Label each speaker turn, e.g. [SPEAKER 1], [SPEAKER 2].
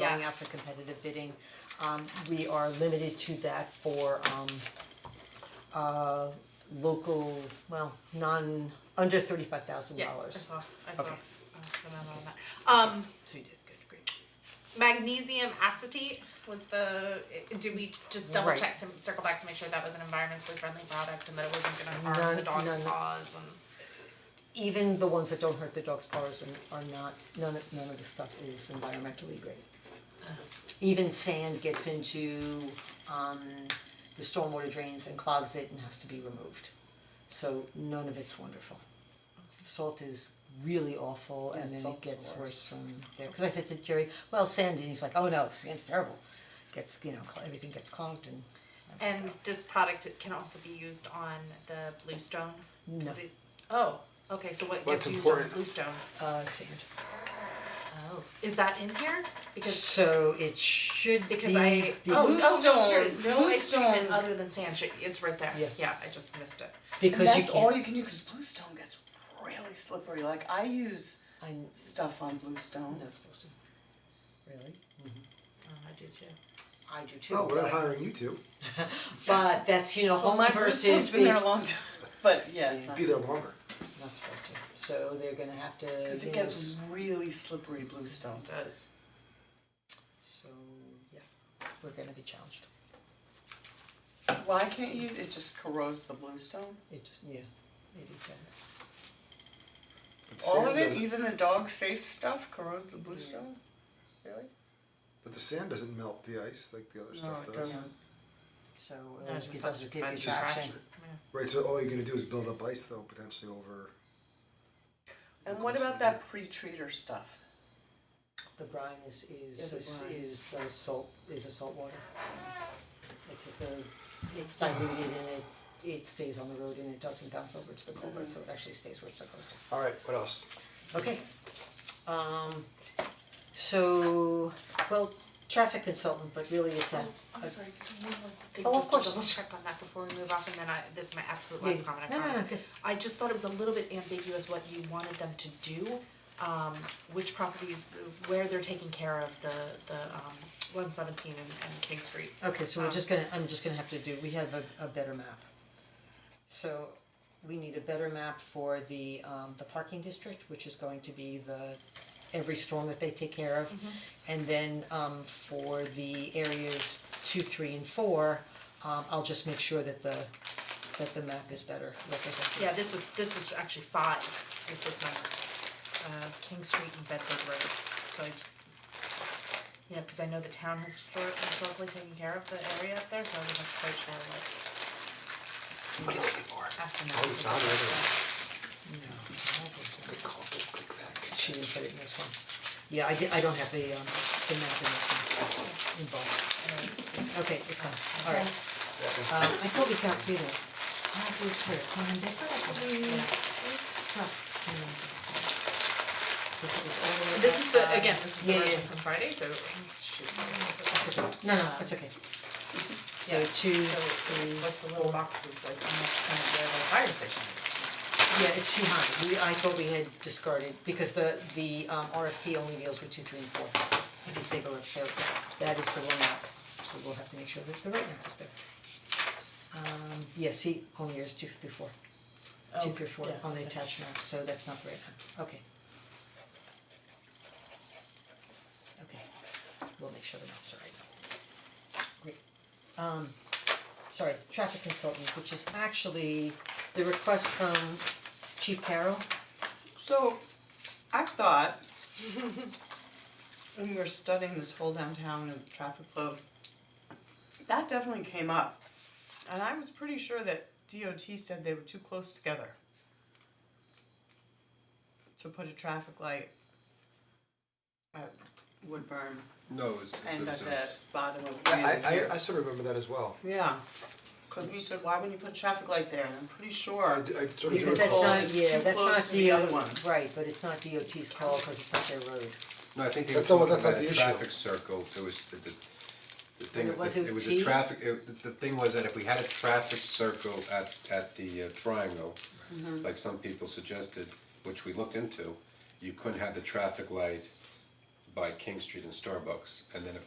[SPEAKER 1] going
[SPEAKER 2] Yes.
[SPEAKER 1] out for competitive bidding. Um, we are limited to that for, um, uh, local, well, non, under thirty-five thousand
[SPEAKER 2] Yeah, I
[SPEAKER 1] dollars.
[SPEAKER 2] saw, I saw, uh,
[SPEAKER 1] Okay.
[SPEAKER 2] the memo on that. Um,
[SPEAKER 1] So you did good, great.
[SPEAKER 2] magnesium acetate was the, do we just double
[SPEAKER 1] Right.
[SPEAKER 2] check to circle back to make sure that was an environmentally friendly product and that it wasn't gonna harm
[SPEAKER 1] None-
[SPEAKER 2] the dog's
[SPEAKER 1] none.
[SPEAKER 2] paws and?
[SPEAKER 1] Even the ones that don't hurt the dog's paws are, are not, none of, none of the stuff is environmentally great. Even sand gets into, um, the stormwater drains and clogs it and has to be removed. So none of it's wonderful. Salt is really awful and
[SPEAKER 3] Yeah,
[SPEAKER 1] then it
[SPEAKER 3] salt's the
[SPEAKER 1] gets worse
[SPEAKER 3] worst.
[SPEAKER 1] from there, cause I said to Jerry, well, sand, and he's like, oh no, sand's terrible. Gets, you know, cl- everything gets clogged and
[SPEAKER 2] And this product can also be used on the bluestone?
[SPEAKER 1] No.
[SPEAKER 2] Is it, oh, okay, so what
[SPEAKER 4] Well,
[SPEAKER 2] gets
[SPEAKER 4] it's
[SPEAKER 2] used on the
[SPEAKER 4] important.
[SPEAKER 2] bluestone?
[SPEAKER 1] uh sand.
[SPEAKER 2] Oh. Is that in here? Because
[SPEAKER 1] So it should be
[SPEAKER 2] Because I,
[SPEAKER 1] be-
[SPEAKER 2] oh, oh,
[SPEAKER 3] Bluestone,
[SPEAKER 2] there is no ice treatment
[SPEAKER 3] Bluestone.
[SPEAKER 2] other than sand, Sh- it's right there,
[SPEAKER 1] Yeah.
[SPEAKER 2] yeah, I just missed it.
[SPEAKER 3] And
[SPEAKER 1] because you
[SPEAKER 3] that's all
[SPEAKER 1] can't,
[SPEAKER 3] you can do, cause bluestone gets really slippery, like I use
[SPEAKER 1] I'm
[SPEAKER 3] stuff on bluestone.
[SPEAKER 1] not supposed to. Really?
[SPEAKER 2] Oh, I do too.
[SPEAKER 1] I do too,
[SPEAKER 4] Oh, we're not
[SPEAKER 1] but,
[SPEAKER 4] hiring you two.
[SPEAKER 1] but that's, you know, home versus
[SPEAKER 3] Bluestone's been there a
[SPEAKER 1] base-
[SPEAKER 3] long time, but yeah, it's not,
[SPEAKER 4] Be there longer.
[SPEAKER 1] Not supposed to, so they're gonna have to,
[SPEAKER 3] cause
[SPEAKER 1] you
[SPEAKER 3] it
[SPEAKER 1] know,
[SPEAKER 3] gets really slippery bluestone.
[SPEAKER 2] It does.
[SPEAKER 1] So, yeah, we're gonna be challenged.
[SPEAKER 3] Why can't you, use- it just corrodes the bluestone?
[SPEAKER 1] It just, yeah, it is that.
[SPEAKER 4] But
[SPEAKER 3] All
[SPEAKER 4] sand
[SPEAKER 3] of it,
[SPEAKER 4] doesn't-
[SPEAKER 3] even the dog safe stuff corrodes the bluestone? Really?
[SPEAKER 4] But the sand doesn't melt the ice like the other
[SPEAKER 3] No,
[SPEAKER 4] stuff
[SPEAKER 3] it
[SPEAKER 4] does.
[SPEAKER 3] doesn't.
[SPEAKER 1] So, uh,
[SPEAKER 2] No, it
[SPEAKER 1] it
[SPEAKER 2] just helps
[SPEAKER 1] doesn't give you
[SPEAKER 2] prevent
[SPEAKER 1] traction.
[SPEAKER 2] traction.
[SPEAKER 4] Right, so all you're gonna do is build up ice though, potentially over.
[SPEAKER 3] And what about that pre-treater stuff?
[SPEAKER 1] The brine is, is,
[SPEAKER 3] Yeah, the
[SPEAKER 1] is,
[SPEAKER 3] brine.
[SPEAKER 1] is uh, salt, is a salt water. It's just the, it's diluted and it, it stays on the road and it doesn't bounce over to the culvert, so it actually stays where it's supposed to.
[SPEAKER 4] All right, what else?
[SPEAKER 1] Okay. Um, so, well, traffic consultant, but really it's a,
[SPEAKER 2] I'm sorry, could you one thing
[SPEAKER 1] Oh, of
[SPEAKER 2] just to
[SPEAKER 1] course.
[SPEAKER 2] double check on that before we move off, and then I, this is my absolute
[SPEAKER 1] Yeah.
[SPEAKER 2] Oh, last comment, I
[SPEAKER 1] No, no, no,
[SPEAKER 2] promise.
[SPEAKER 1] good.
[SPEAKER 2] I just thought it was a little bit ambiguous what you wanted them to do, um, which properties, where they're taking care of the, the, um, one seventeen and, and King Street.
[SPEAKER 1] okay, so we're
[SPEAKER 2] Um,
[SPEAKER 1] just gonna, I'm just gonna have to do, we have a, a better map. So, we need a better map for the, um, the parking district, which is going to be the, every storm that they take care
[SPEAKER 2] Mm-hmm.
[SPEAKER 1] of. And then, um, for the areas two, three, and four, um, I'll just make sure that the, that the map is better represented.
[SPEAKER 2] Yeah, this is, this is actually five, is this number, uh, King Street and Bedford Road, so I just. Yeah, cause I know the town has histor- historically taken care of the area up there, so I wasn't quite sure what,
[SPEAKER 4] What are you looking for?
[SPEAKER 2] ask them
[SPEAKER 4] Oh, it's not everywhere.
[SPEAKER 1] No, I don't think so.
[SPEAKER 4] Good call, good, quick fact.
[SPEAKER 1] She didn't put it in this one. Yeah, I did, I don't have the um the map in this one, in box. Okay, it's fine, alright. Um I thought we got rid of, that was her, and I thought we
[SPEAKER 2] Mm.
[SPEAKER 1] stuff in there. This was all the way
[SPEAKER 2] This is the,
[SPEAKER 1] back,
[SPEAKER 2] again,
[SPEAKER 1] uh,
[SPEAKER 2] this is the
[SPEAKER 1] yeah,
[SPEAKER 2] version
[SPEAKER 1] yeah.
[SPEAKER 2] from Friday, so shoot.
[SPEAKER 1] It's okay, no, no, it's okay. So
[SPEAKER 2] Yeah,
[SPEAKER 1] two,
[SPEAKER 2] So it's
[SPEAKER 1] three,
[SPEAKER 2] like the little boxes, like almost kind of where the fire station is.
[SPEAKER 1] yeah, it's Sheehan, we, I thought we had discarded, because the the um RFP only deals with two, three, and four. If you take a look, so that is the one map, so we'll have to make sure that the right map is there. Um, yeah, see, only there's two through four.
[SPEAKER 2] Oh,
[SPEAKER 1] Two through four on the attached map, so that's not the right map, okay. Okay, we'll make sure the map's are right. Great. Um, sorry, traffic consultant, which is actually the request from Chief Carroll.
[SPEAKER 3] So, I thought, when we were studying this whole downtown and traffic flow, that definitely came up. And I was pretty sure that DOT said they were too close together to put a traffic light at Woodburn
[SPEAKER 5] No, it was.
[SPEAKER 3] and at
[SPEAKER 5] it was-
[SPEAKER 3] the bottom of Granite
[SPEAKER 4] I,
[SPEAKER 3] Pier.
[SPEAKER 4] I, I sort of remember that as well.
[SPEAKER 3] Yeah, cause we said, why wouldn't you put a traffic light there, and I'm pretty
[SPEAKER 4] I, I
[SPEAKER 3] sure,
[SPEAKER 4] sort of do
[SPEAKER 3] Because
[SPEAKER 1] Because
[SPEAKER 3] that's
[SPEAKER 1] that's
[SPEAKER 4] recall.
[SPEAKER 3] not-
[SPEAKER 1] not,
[SPEAKER 3] it's
[SPEAKER 1] yeah,
[SPEAKER 3] too
[SPEAKER 1] that's
[SPEAKER 3] close
[SPEAKER 1] not
[SPEAKER 3] to the other
[SPEAKER 1] DOT,
[SPEAKER 3] one.
[SPEAKER 1] right, but it's not DOT's call because it's not their road.
[SPEAKER 5] No, I think they were
[SPEAKER 4] That's not what-
[SPEAKER 5] talking
[SPEAKER 4] that's not
[SPEAKER 5] about a
[SPEAKER 4] the issue.
[SPEAKER 5] traffic circle, it was the, the, the thing,
[SPEAKER 1] it was
[SPEAKER 5] it it was a
[SPEAKER 1] OT?
[SPEAKER 5] traffic, it, the- the thing was that if we had a traffic circle at, at the uh, triangle, like some people suggested, which we looked into, you couldn't have the traffic light by King Street and Starbucks, and then of